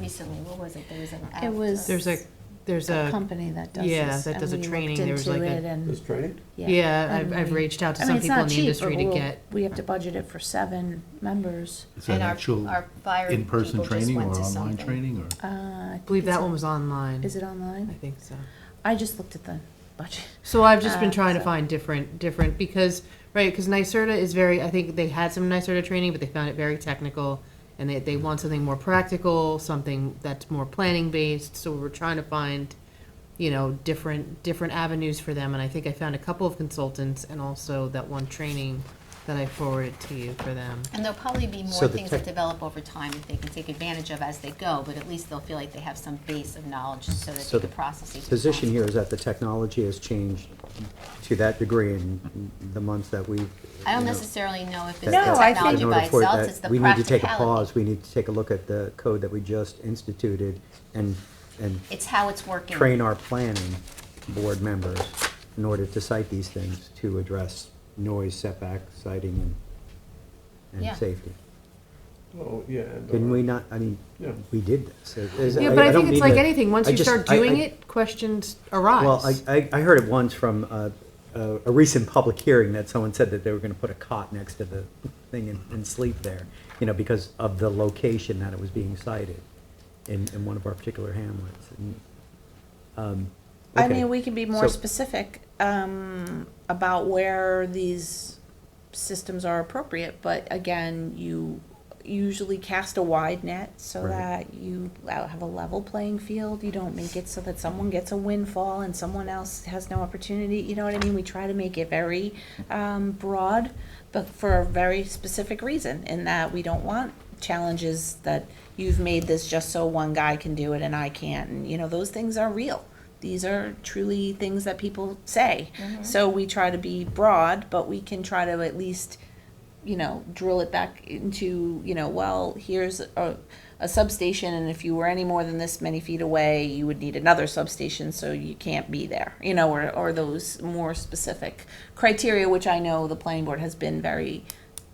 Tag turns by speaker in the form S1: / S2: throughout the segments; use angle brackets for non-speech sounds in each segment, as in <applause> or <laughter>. S1: recently, what was it? There was an.
S2: It was-
S3: There's a, there's
S2: a
S3: a,
S2: company that does
S3: yeah,
S2: this,
S3: that
S2: and
S3: does a
S2: we looked
S3: training. There was
S2: into
S3: like a-
S2: it and-
S4: This training?
S3: yeah, I've,
S2: and
S3: I've
S2: we-
S3: reached out to
S2: I mean,
S3: some
S2: it's
S3: people
S2: not
S3: in the
S2: cheap,
S3: industry
S2: but
S3: to
S2: we'll-
S3: get,
S2: We have to budget it for seven members.
S5: Is that
S1: And our-
S5: actual
S1: our fire people
S5: in-person
S1: just
S5: training or
S1: went to
S5: online
S1: something.
S5: training or?
S2: Uh, I
S3: I believe
S2: think it's
S3: that
S2: on-
S3: one was online.
S2: Is it
S3: I
S2: online?
S3: think so.
S2: I just looked at the budget.
S3: So I've just been
S2: Uh,
S3: trying to
S2: so-
S3: find different, different, because, right, because NYSERDA is very, I think they had some NYSERDA training, but they found it very technical, and they, they want something more practical, something that's more planning-based, so we're trying to find, you know, different, different avenues for them, and I think I found a couple of consultants, and also that one training that I forwarded to you for them.
S1: And there'll probably be
S4: So
S1: more
S4: the
S1: things that
S4: tech-
S1: develop over time that they can take advantage of as they go, but at least they'll feel like they have some base of knowledge so that
S4: So
S1: they can
S4: the
S1: process these.
S4: Position here is that the technology has changed to that degree in the months that we've.
S1: I don't
S4: you know,
S1: necessarily know if it's the
S4: that- that-
S2: I think-
S1: technology
S4: in
S1: by
S4: order for
S1: itself,
S4: that,
S1: it's the
S4: We need to take a
S1: practicality.
S4: pause, we need to take a look at the code that we just instituted and, and
S1: It's how it's working.
S4: train our planning board members in order to cite these things to address noise setback, sighting, and,
S1: Yeah.
S4: and safety.
S6: Oh, yeah. and-
S4: Didn't we not, I mean,
S6: Yeah.
S4: we did this. It- it's-
S3: Yeah, but I
S4: don't
S3: think it's
S4: mean
S3: like
S4: to-
S3: anything, once
S4: I
S3: you
S4: just-
S3: start
S4: I-
S3: doing
S4: I-
S3: it, questions arise.
S4: Well, I, I, I heard it once from uh, a, a recent public hearing that someone said that they were gonna put a cot next to the thing and, and sleep there, you know, because of the location that it was being cited in, in one of our particular hamlets. And, um,
S2: I
S4: okay.
S2: mean, we can be more
S4: So-
S2: specific um, about where these systems are appropriate, but again, you usually cast a wide net so
S4: Right.
S2: that you uh, have a level playing field. You don't make it so that someone gets a windfall and someone else has no opportunity. You know what I mean? We try to make it very um, broad, but for a very specific reason, in that we don't want challenges that you've made this just so one guy can do it and I can't. And, you know, those things are real. These are truly things that people say. So we try to be broad, but we can try to at least you know, drill it back into, you know, well, here's a, a substation, and if you were any more than this many feet away, you would need another substation, so you can't be there, you know, or, or those more specific criteria, which I know the planning board has been very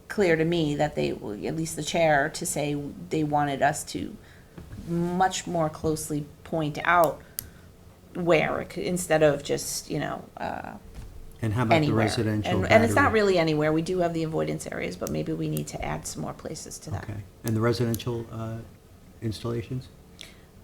S2: clear to me that they, at least the chair, to say they wanted us to much more closely point out where, it could- instead of just, you know, uh,
S4: And how about the
S2: anywhere.
S4: residential
S2: And, and it's not
S4: battery?
S2: really anywhere. We do have the avoidance areas, but maybe we need to add some more places to that.
S4: Okay, and the residential uh, installations?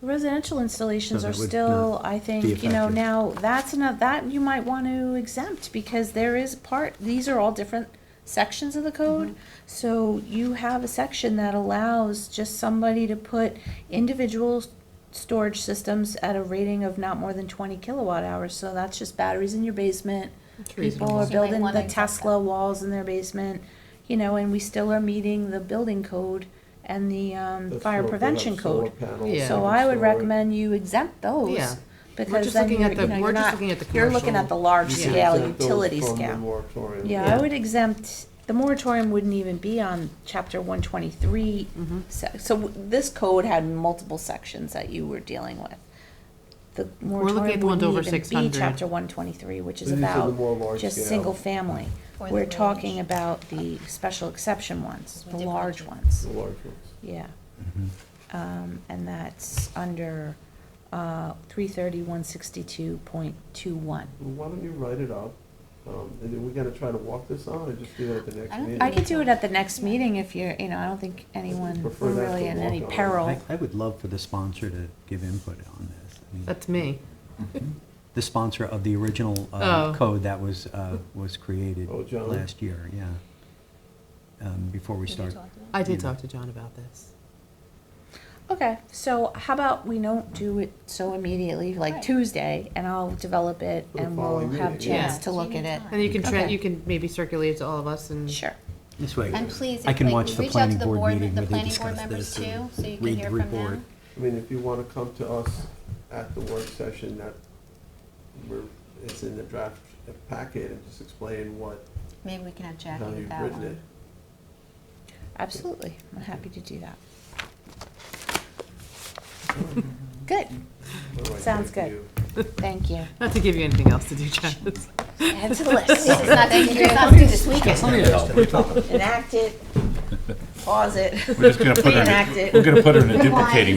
S2: Residential installations
S4: So
S2: are
S4: that would
S2: still,
S4: not
S2: I
S4: be
S2: think, you know,
S4: affected.
S2: now, that's enough, that you might want to exempt, because there is part, these are all different sections of the code. So you have a section that allows just somebody to put individual s- storage systems at a rating of not more than twenty kilowatt hours, so that's just batteries in your basement. People
S3: reasonable.
S2: are
S1: So you might
S2: building
S1: wanna
S2: the
S1: exempt that.
S2: Tesla walls in their basement, you know, and we still are meeting the building code and the, um,
S6: That's
S2: fire
S6: what-
S2: prevention
S6: that's solar
S2: code.
S6: panels uh,
S3: Yeah.
S2: So
S6: and
S2: I would
S6: solar-
S2: recommend you exempt
S3: Yeah.
S2: those, because
S3: just
S2: then
S3: looking
S2: you're,
S3: at
S2: you
S3: the-
S2: know,
S3: we're
S2: you're
S3: just
S2: not,
S3: looking at the
S2: you're looking
S3: commercial.
S2: at the large
S6: You can
S2: scale,
S6: exempt those
S2: utility
S6: from the
S2: scale.
S6: moratorium.
S2: Yeah, I would exempt, the moratorium wouldn't even be on chapter one twenty-three.
S3: Mm-hmm.
S2: So, w- this code had multiple sections that you were dealing with. The
S3: looking at
S2: moratorium
S3: the ones over
S2: wouldn't even be
S3: 600.
S2: chapter one twenty-three, which is
S6: These are the more
S2: about
S6: large
S2: just
S6: scale.
S2: single family.
S1: Or the
S2: We're
S1: range.
S2: talking about the special exception ones, the
S1: We did
S2: large
S1: budget.
S2: ones.
S6: The large ones.
S2: Yeah.
S4: Mm-hmm.
S2: Um, and that's under, uh, three thirty, one sixty-two point two one.
S6: Well, Why don't you write it up, um, and then we gotta try to walk this on, or just do it at the
S1: I
S6: next
S1: don't
S6: meeting?
S2: I could do it at the next meeting if you're, you know, I don't think anyone,
S6: Prefer
S2: we're
S6: that
S2: really
S6: to
S2: in any
S6: walk on.
S2: peril.
S4: I, I would love for the sponsor to give input on this. I mean,
S3: That's me.
S4: The sponsor of the original
S3: Oh.
S4: uh, code that was, uh, was created
S6: Oh, John.
S4: last year, yeah. Um, Before we
S1: Did you
S4: start.
S1: talk to them?
S3: I did
S4: Yeah.
S3: talk to John about this.
S2: Okay, so how about we don't do it so immediately, like
S1: Right.
S2: Tuesday, and I'll develop it
S6: For the
S2: and we'll
S6: following
S2: have a
S6: meeting, yeah.
S2: chance
S1: Yeah.
S2: to look at it.
S3: And you can, tra-
S2: Okay.
S3: you can maybe circulate it to all of us and.
S2: Sure.
S4: This way,
S1: And please,
S4: I
S1: if,
S4: can
S1: like,
S4: watch the
S1: reach out
S4: planning
S1: to the
S4: board
S1: board-
S4: meeting
S1: the
S4: where they
S1: planning board
S4: discuss
S1: members
S4: this and
S1: too, so you can
S4: read
S1: hear
S4: the
S1: from them.
S4: report.
S6: I mean, if you wanna come to us at the work session, that, we're, it's in the draft packet, and just explain what,
S1: Maybe we can have Jackie
S6: how
S1: with
S6: you've
S1: that
S6: written
S1: one.
S6: it.
S2: Absolutely, I'm happy to do that. Good,
S6: What do I
S2: Sounds
S6: say to
S2: good.
S6: you?
S2: thank you.
S3: Not to give you anything else to do, <laughs> Travis.
S2: Add to the list.
S1: This is not, it's not due this weekend.
S2: Enact it, pause it.
S5: We're just gonna put her,
S2: Reenact
S1: <laughs>
S2: it.
S5: in- we're gonna put her in a
S1: Rewind.
S5: duplicating